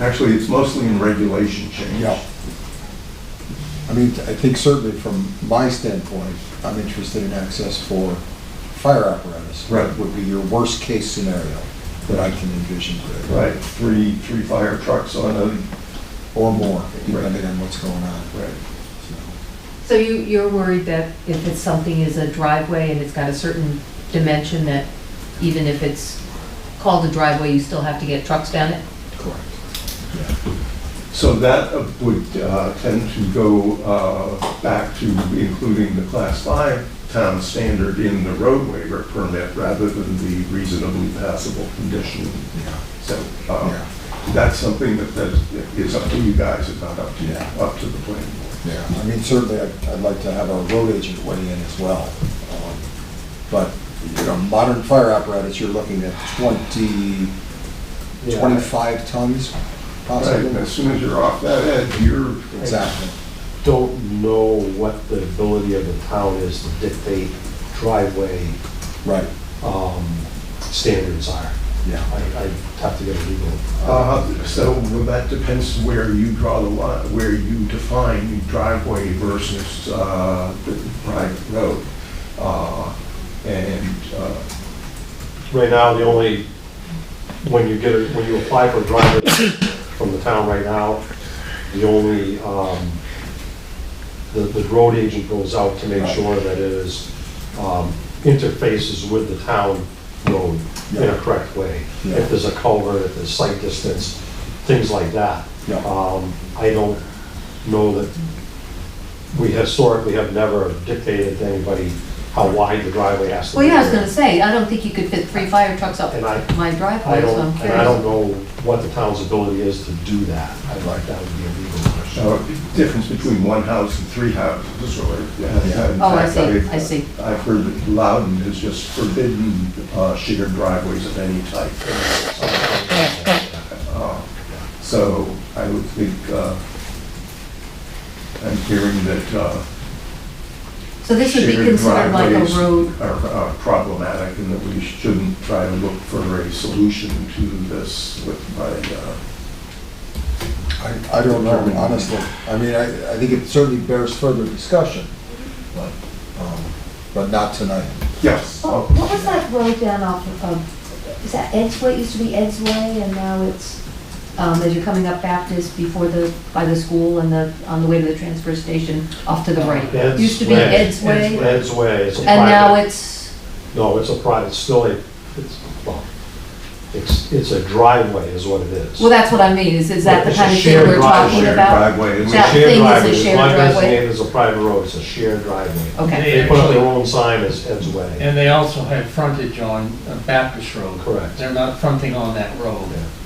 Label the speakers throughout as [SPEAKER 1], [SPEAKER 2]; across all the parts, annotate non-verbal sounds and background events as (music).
[SPEAKER 1] Actually, it's mostly in regulation change.
[SPEAKER 2] Yeah. I mean, I think certainly from my standpoint, I'm interested in access for fire apparatus.
[SPEAKER 1] Right.
[SPEAKER 2] Would be your worst-case scenario that I can envision.
[SPEAKER 1] Right, three, three fire trucks on a,
[SPEAKER 2] Or more,
[SPEAKER 1] Right.
[SPEAKER 2] depending on what's going on.
[SPEAKER 1] right.
[SPEAKER 2] So,
[SPEAKER 3] So you, you're worried that if it's something is a driveway and it's got a certain dimension that even if it's called a driveway, you still have to get trucks down it?
[SPEAKER 2] Correct.
[SPEAKER 1] So that uh, would uh, tend to go uh, back to including the class five town standard in the road waiver permit rather than the reasonably passable condition.
[SPEAKER 2] Yeah,
[SPEAKER 1] So
[SPEAKER 2] yeah,
[SPEAKER 1] um,
[SPEAKER 2] yeah,
[SPEAKER 1] that's something that that is up to you guys, it's not up to,
[SPEAKER 2] Yeah.
[SPEAKER 1] up to the planning board.
[SPEAKER 2] yeah. I mean, certainly, I'd I'd like to have our road agent weigh in as well. Um, But, you know, modern fire apparatus, you're looking at 20, 25 tons
[SPEAKER 1] Right,
[SPEAKER 2] possibly.
[SPEAKER 1] and as soon as you're off that edge, you're,
[SPEAKER 2] Exactly.
[SPEAKER 4] don't know what the ability of the town is to dictate driveway
[SPEAKER 2] Right,
[SPEAKER 4] um, standards are.
[SPEAKER 2] yeah.
[SPEAKER 4] I I have to get a legal.
[SPEAKER 1] uh, so that depends where you draw the line, where you define driveway versus uh, the private road. Uh, And uh,
[SPEAKER 4] Right now, the only, when you get, a- when you apply for a driveway from the town right now, the only, um, the, the road agent goes out to make
[SPEAKER 2] Right.
[SPEAKER 4] sure that it is, um, interfaces with the town road in
[SPEAKER 2] Yeah.
[SPEAKER 4] a correct way.
[SPEAKER 2] Yeah.
[SPEAKER 4] If there's a culvert, if there's sight distance, things like that.
[SPEAKER 2] Yeah.
[SPEAKER 4] Um, I don't know that, we historically have never dictated to anybody how wide the driveway has to be.
[SPEAKER 3] Well, yeah, I was gonna say, I don't think you could fit three fire trucks up
[SPEAKER 4] And I-
[SPEAKER 3] my
[SPEAKER 4] I
[SPEAKER 3] driveway, so I'm
[SPEAKER 4] don't, and I don't
[SPEAKER 3] curious.
[SPEAKER 4] know what the town's ability is to do that. I'd like, that would be a legal question.
[SPEAKER 1] So the difference between one house and three houses, or.
[SPEAKER 2] Yeah.
[SPEAKER 3] Oh, I see, I see.
[SPEAKER 1] I've heard that Loudon has just forbidden uh, shared driveways of any type. Uh, So I would think, uh, I'm hearing that uh,
[SPEAKER 3] So this would be
[SPEAKER 1] shared
[SPEAKER 3] considered like a
[SPEAKER 1] driveways
[SPEAKER 3] road,
[SPEAKER 1] are are problematic and that we shouldn't try to look for a solution to this with my, uh,
[SPEAKER 2] I, I don't know, honestly. I mean, I, I think it certainly bears further discussion, but, um, but not tonight.
[SPEAKER 1] yes.
[SPEAKER 5] Oh, what was that road down off of, um, is that Ed's Way, It used to be Ed's Way, and now it's,
[SPEAKER 3] um, as you're coming up Baptist before the, by the school and the, on the way to the transfer station, off to the right.
[SPEAKER 4] Ed's
[SPEAKER 3] Used to be
[SPEAKER 4] Way.
[SPEAKER 3] Ed's Way,
[SPEAKER 4] Ed's Way is a
[SPEAKER 3] and now
[SPEAKER 4] private,
[SPEAKER 3] it's,
[SPEAKER 4] no, it's a private, it's still a, it's, well, it's, it's a driveway is what it is.
[SPEAKER 3] well, that's what I mean, is, is that the
[SPEAKER 4] It's a
[SPEAKER 3] kind of thing
[SPEAKER 4] shared
[SPEAKER 3] we're
[SPEAKER 4] drive-
[SPEAKER 3] talking
[SPEAKER 1] Shared
[SPEAKER 3] about?
[SPEAKER 1] driveway. and we
[SPEAKER 4] It's a
[SPEAKER 3] that
[SPEAKER 4] shared
[SPEAKER 3] thing is a
[SPEAKER 4] driveway. It's
[SPEAKER 3] shared
[SPEAKER 4] not
[SPEAKER 3] driveway?
[SPEAKER 4] designated as a private road, it's a shared driveway.
[SPEAKER 3] Okay,
[SPEAKER 4] They put up their own sign as Ed's Way.
[SPEAKER 6] And they also have frontage on uh, Baptist Road.
[SPEAKER 4] Correct.
[SPEAKER 6] They're not fronting on that road.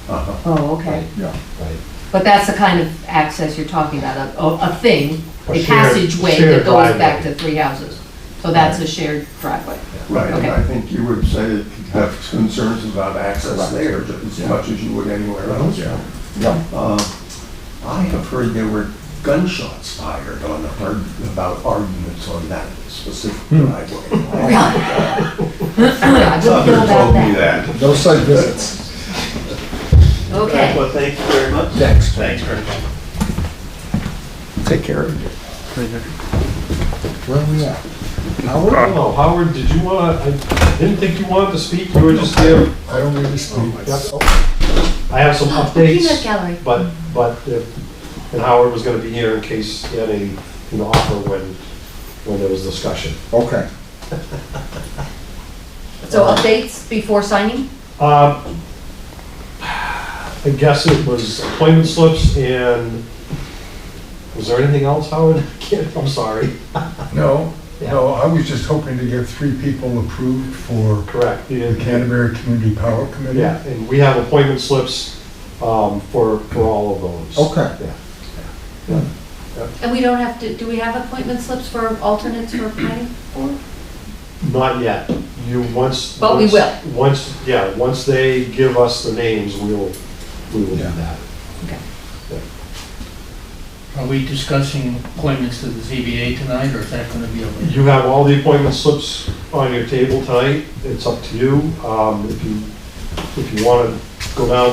[SPEAKER 1] Uh-huh.
[SPEAKER 3] oh, okay.
[SPEAKER 2] Yeah.
[SPEAKER 4] Right.
[SPEAKER 3] But that's the kind of access you're talking about, a- a, a thing,
[SPEAKER 4] A
[SPEAKER 3] a
[SPEAKER 4] shared-
[SPEAKER 3] passageway that
[SPEAKER 4] shared
[SPEAKER 3] goes back
[SPEAKER 4] driveway.
[SPEAKER 3] to three houses. So that's a shared driveway.
[SPEAKER 1] Right, and
[SPEAKER 3] Okay.
[SPEAKER 1] I think you would say you have concerns about access
[SPEAKER 2] Correct.
[SPEAKER 1] there just as
[SPEAKER 2] Yeah.
[SPEAKER 1] much as you would anywhere else.
[SPEAKER 2] Yeah,
[SPEAKER 1] Uh, I have heard there were gunshots fired on, the arg- about arguments on that specific
[SPEAKER 7] Hmm.
[SPEAKER 3] (laughs)
[SPEAKER 1] driveway.
[SPEAKER 3] Yeah, I wouldn't
[SPEAKER 1] Somebody
[SPEAKER 3] know about
[SPEAKER 1] told me
[SPEAKER 3] that.
[SPEAKER 1] that.
[SPEAKER 2] no site visits.
[SPEAKER 3] Okay,
[SPEAKER 8] Well, thank you very much.
[SPEAKER 2] Next.
[SPEAKER 6] Thanks very much.
[SPEAKER 1] Take care of it.
[SPEAKER 2] Where are we at? Howard?
[SPEAKER 4] Oh, Howard, did you wanna, I didn't think you wanted to speak, you were just there.
[SPEAKER 2] I don't really speak.
[SPEAKER 4] I have some
[SPEAKER 5] peanut
[SPEAKER 4] updates.
[SPEAKER 5] gallery.
[SPEAKER 4] But, but, if- and Howard was gonna be here in case he had a, an offer when, when there was discussion.
[SPEAKER 2] Oh, Okay.
[SPEAKER 3] so updates before signing?
[SPEAKER 4] Uh, I guess it was appointment slips and, was there anything else, Howard? (laughs) I can't- I'm sorry.
[SPEAKER 7] No, no, I was just hoping to get three people approved for
[SPEAKER 4] Correct.
[SPEAKER 7] the Canterbury Community Power Committee.
[SPEAKER 4] Yeah, and we have appointment slips, um, for, for all of those.
[SPEAKER 2] Okay.
[SPEAKER 4] Yeah.
[SPEAKER 3] And we don't have to, do we have appointment slips for alternates for planning board?
[SPEAKER 4] Not yet. You, once.
[SPEAKER 3] But we
[SPEAKER 4] once-
[SPEAKER 3] will.
[SPEAKER 4] Once, yeah, once they give us the names, we'll, we will do
[SPEAKER 2] Yeah.
[SPEAKER 4] that.
[SPEAKER 6] Are we discussing appointments to the ZBA tonight, or is that going to be a later?
[SPEAKER 4] You have all the appointment slips on your table tonight. It's up to you. Um, If you, if you want to go down